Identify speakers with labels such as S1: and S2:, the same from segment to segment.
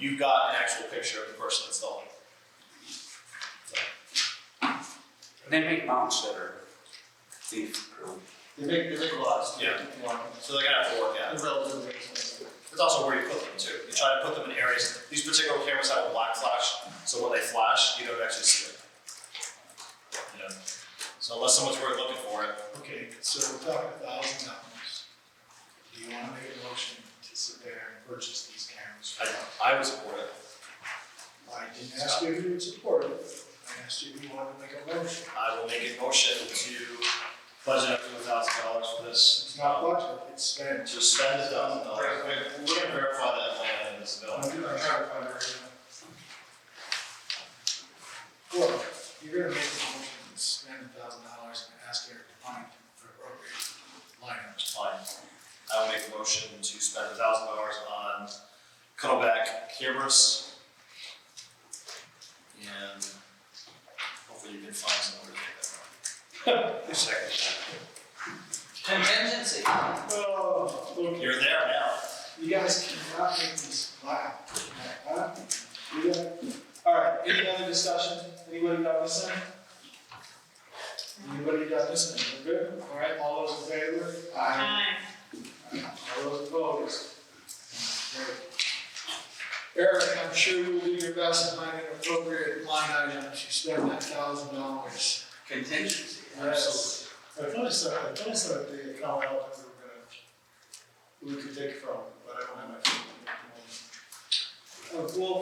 S1: you got an actual picture of the person installing.
S2: They make mounts that are thief proof.
S3: They make, they make a lot of stuff.
S1: Yeah.
S3: One,
S1: So they gotta have to work out.
S3: They're relatively expensive.
S1: It's also where you put them too. You try to put them in areas, these particular cameras have a black flash, so when they flash, you don't actually see it. You know, so unless someone's really looking for it,
S4: Okay, so we're talking a thousand dollars. Do you wanna make a motion to sit there and purchase these cameras?
S1: I, I would support it.
S4: I didn't ask you if you would support it, I asked you if you wanted to make a motion.
S1: I will make a motion to budget up to a thousand dollars for this.
S4: It's not budget, it's spent.
S1: To spend a thousand dollars. We're gonna verify that line item is
S4: I'm
S1: available.
S4: trying to find it right now. Look, you're gonna make a motion and spend a thousand dollars and ask Eric to find the appropriate lineup.
S1: Fine. I will make a motion to spend a thousand dollars on Kodak cameras. And hopefully you can find someone to take that. Second.
S2: Contingency.
S4: Oh, look,
S1: You're there now.
S4: You guys cannot make this laugh. Huh? You got- All right, any other discussion? Anybody got this in? Anybody got this in? We're good? All right, all those in favor? All those opposed? Great. Eric, I'm sure you'll do your best in finding an appropriate line item if you spend that thousand dollars.
S2: Contingency,
S4: Yes. I thought I saw, I thought I saw the account out that we were gonna, we could take from, but I don't have my phone. Uh, well,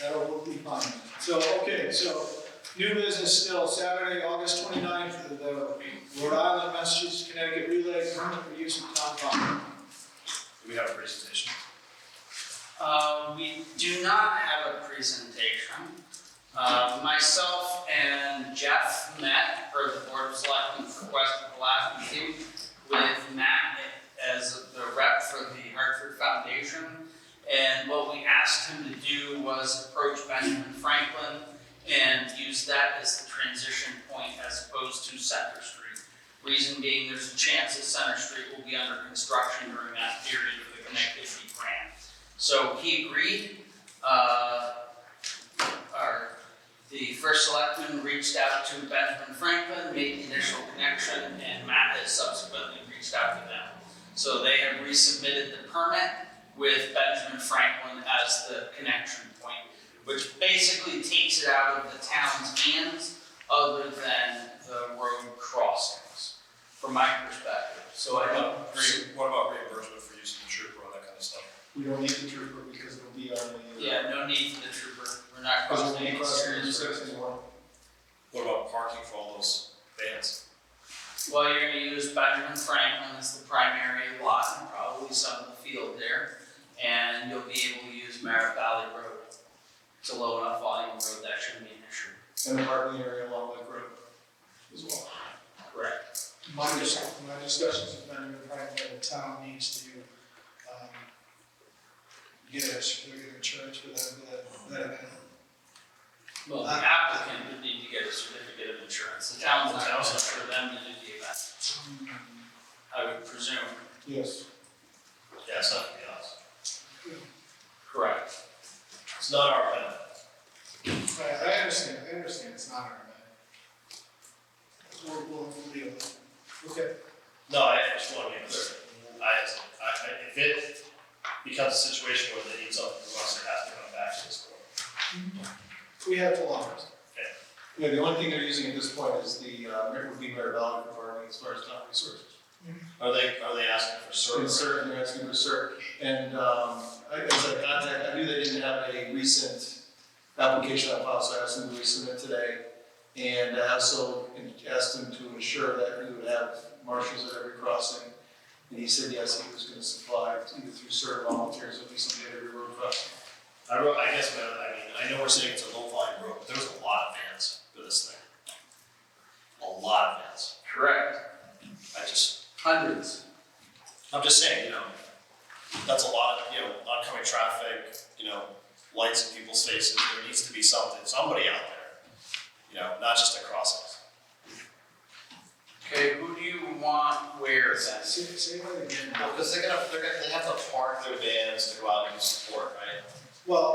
S4: that'll will uh, be fine. So, okay, so new business still, Saturday, August twenty-ninth, the Rhode Island, Massachusetts, Connecticut Relay Permit for Use of Town Farm.
S1: Do we have a presentation?
S2: Uh, we do not have a presentation. Uh, myself and Jeff met, or the Board of Selectmen for West Black meeting, with Matt as the rep for the Hartford Foundation. And what we asked him to do was approach Benjamin Franklin and use that as the transition point as opposed to Center Street. Reason being, there's a chance that Center Street will be under construction during that period of the connectivity grant. So he agreed, uh, our, the first selectman reached out to Benjamin Franklin, made the initial connection, and Matt has subsequently reached out to them. So they have resubmitted the permit with Benjamin Franklin as the connection point, which basically takes it out of the town's hands other than the road crossings, from my perspective. So I don't agree.
S1: What about reimbursement for using the trooper, all that kind of stuff?
S4: We don't need the trooper because it'll be on the. uh,
S2: Yeah, no need for the trooper, we're not
S4: Because
S2: crossing
S4: it'll be
S2: any
S4: across the
S2: serious roads.
S4: sixty-one.
S1: What about parking for all those vans?
S2: Well, you're gonna use Benjamin Franklin as the primary lot and probably some of the field there. And you'll be able to use Merritt Valley Road. It's a low enough volume road, that shouldn't be an issue.
S4: And the parking area along Lake Road as well.
S2: Correct.
S4: My, dis- my discussions with Benjamin Franklin, the town needs to, um, get a certificate of insurance for that, for that, that event.
S2: Well, the applicant would need to get a certificate of insurance, the town's not gonna for them to do the event, I would presume.
S4: Yes.
S1: Yeah, it's not gonna be us.
S2: Correct.
S1: It's not our event.
S4: I, I understand, I understand, it's not our event. We'll, we'll we'll deal with it. Okay.
S1: No, I just want to be clear. I, I, I- if it becomes a situation where they need something from us, it has to come back to this board.
S4: We have full hours.
S1: Okay.
S5: Yeah, the only thing they're using at this point is the, uh, Mer- would be Merritt Valley for farming as far as town resources.
S1: Are they, are they asking for
S5: And
S1: service?
S5: CERT, they're asking for CERT, and, um, I, as I contact, I knew they didn't have a recent application on file, so I asked them to resubmit today. And I also asked them to ensure that we would have marshals at every crossing. And he said, yes, he was gonna supply either through CERT volunteers, or at least somebody at every road crossing.
S1: I wrote, I guess, man, I mean, I know we're saying it's a low volume road, but there's a lot of vans for this thing. A lot of vans.
S2: Correct.
S1: I just,
S2: Hundreds.
S1: I'm just saying, you know, that's a lot of, you know, oncoming traffic, you know, lights in people's faces. There needs to be something, somebody out there, you know, not just a crossing.
S2: Okay, who do you want where then?
S4: Say, say that again.
S1: Well, because they're gonna, they're gonna, they have to park their vans to go out and support, right?
S4: Well,